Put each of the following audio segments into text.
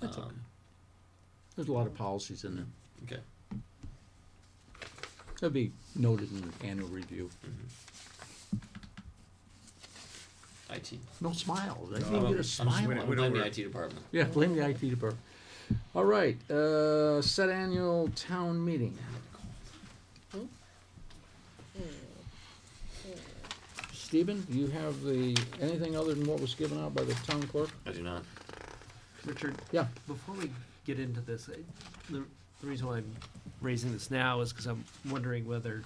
That's okay. Um, There's a lot of policies in there. Okay. That'll be noted in the annual review. IT. No smiles. Well, I can't get I'm a just- smile. I'm out of blame the that. IT department. Yeah, blame the IT department. All right, uh, set annual town meeting. Stephen, do you have the, anything other than what was given out by the town clerk? I do not. Richard, Yeah, before we get into this, I- the, the reason why I'm raising this now is because I'm wondering whether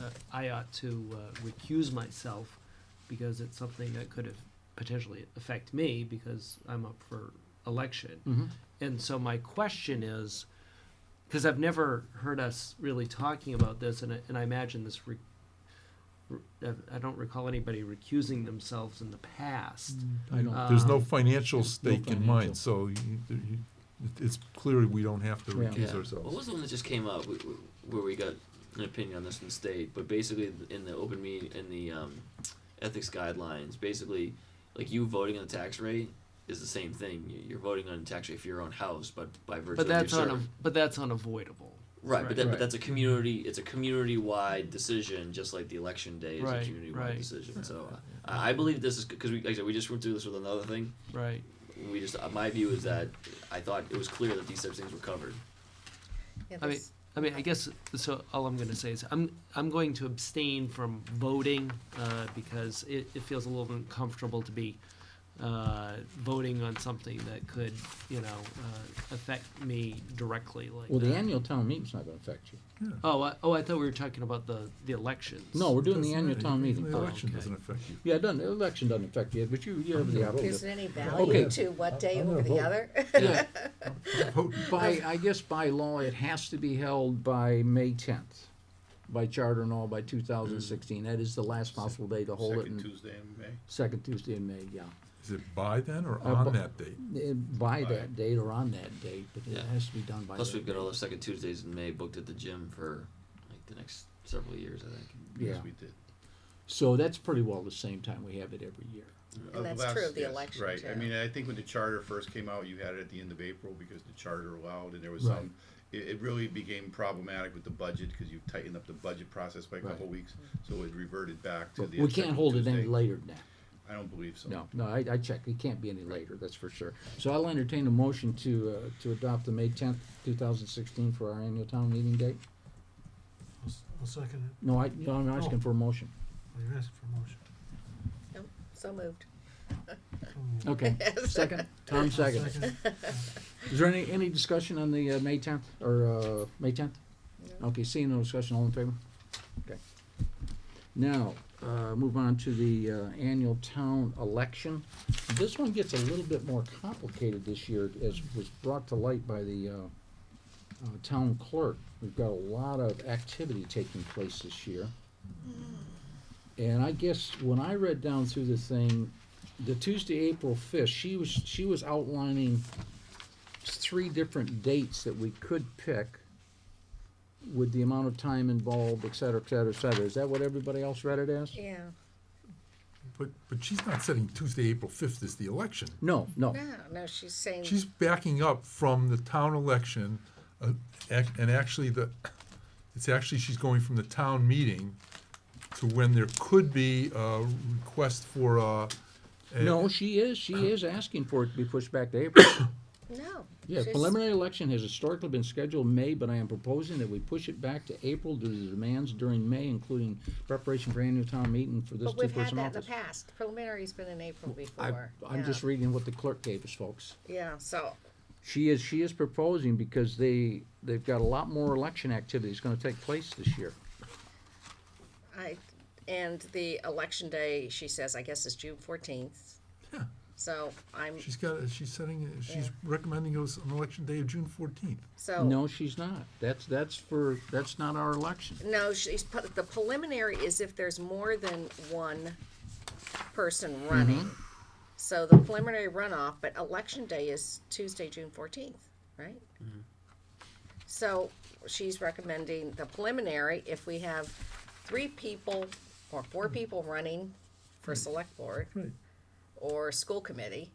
uh, I ought to uh, recuse myself because it's something that could have potentially affect me because I'm up for election. mhm. And so my question is, because I've never heard us really talking about this, and I, and I imagine this, re, re- uh, I- I don't recall anybody recusing themselves in the past. I don't, Uh, There's no Um, financial stake in financial. mind, so you- you- it- it's clearly we don't have to Yeah. recuse What was ourselves. the one that just came up wh- wh- where we got an opinion on this from the state? But basically, th- in the open meeting, in the um, ethics guidelines, basically, like you voting on the tax rate is the same thing. You- You're voting on the tax rate for your own house, but by virtue But that's of your unav- serv- but that's unavoidable. right. But, that, Right. but that's a community. It's a community-wide decision, just like the election day is Right, a community-wide right. decision. So uh, I I believe this is because we, like I said, we just went through this with another thing. Right. We just uh, my view is that I thought it was clear that these types of things were covered. Yeah, I mean, this- I mean, I guess so. All I'm going to say is I'm I'm going to abstain from voting uh, because it, it feels a little uncomfortable to be uh, voting on something that could you know uh, affect me directly like well, the that. annual town meeting's not gonna affect you. oh I, oh I thought we were talking about the the elections. No, we're doing the Doesn't- annual town meeting The first. election okay. doesn't affect you. Yeah, it doesn't, the election doesn't affect you, but you, you have the option. Is there any value to I'm- what day I'm gonna over the vote. other? Yeah, Vote. By, I guess by law, it has to be held by May tenth, by charter and all, by two thousand sixteen. That is the last possible day to hold it. Mm. Second in- Tuesday in May. Second Tuesday in May, yeah. Is it by then or Uh, bu- on that date? Eh, By By- that date or on that date, but it Yeah. has to be done by. Plus, that we've got date. all the second Tuesdays in May booked at the gym for like the next several years, I think. Yeah, Yes, we did. so that's pretty well the same time we have it every year. Uh, the that's true of last- the yes, election, Right, I too. mean, I think when the charter first came out, you had it at the end of April because the charter allowed, and there was Right. some, it, it really became problematic with the budget, cause you tightened up the budget process by a couple Right. weeks, so it reverted back to But the. We second can't hold it any Tuesday. later than that. I don't believe so. No, no, I, I checked. It can't be any later, that's for sure. So I'll entertain a motion to, uh, to adopt the May tenth, two thousand sixteen for our annual town meeting date. I'll second it. No, I, no, I'm Oh. asking for a motion. Well, you're asking for a motion. No, So moved. I'll Okay, second, Tom second. second it. Is there any, any discussion on the, uh, May tenth, or, uh, May tenth? Okay, seeing no discussion, all in favor? Okay. Now, uh, move on to the, uh, annual town election. This one gets a little bit more complicated this year, as was brought to light by the, uh, uh, town clerk. We've got a lot of activity taking place this year. And I guess when I read down through the thing, the Tuesday, April fifth, she was, she was outlining three different dates that we could pick with the amount of time involved, et cetera, et cetera, et cetera. Is that what everybody else read it as? Yeah, But, but she's not setting Tuesday, April fifth as the election. No, no. no, no, she's saying, She's backing up from the town election, uh, ac- and actually the, it's actually, she's going from the town meeting to when there could be a request for a. a- No, she is, she is asking for it to be pushed back to April. no. Yeah, she's- preliminary election has historically been scheduled May, but I am proposing that we push it back to April due to the demands during May, including preparation for annual town meeting for this But we've had two-person that in the office. past. Preliminary's been in April I, before. I'm Yeah, just reading what the clerk gave us, folks. Yeah, so, She is, she is proposing because they, they've got a lot more election activity that's gonna take place this year. I, and the election day, she says, I guess is June fourteenth. Yeah. So I'm, She's got, she's setting, she's recommending us an election day of June fourteenth. so. No, she's not. That's, that's for, that's not our election. No, she's, put- the preliminary is if there's more than one person running. So the preliminary runoff, but election day is Tuesday, June fourteenth, right? So she's recommending the preliminary, if we have three people or four people running for select board Right. or school committee,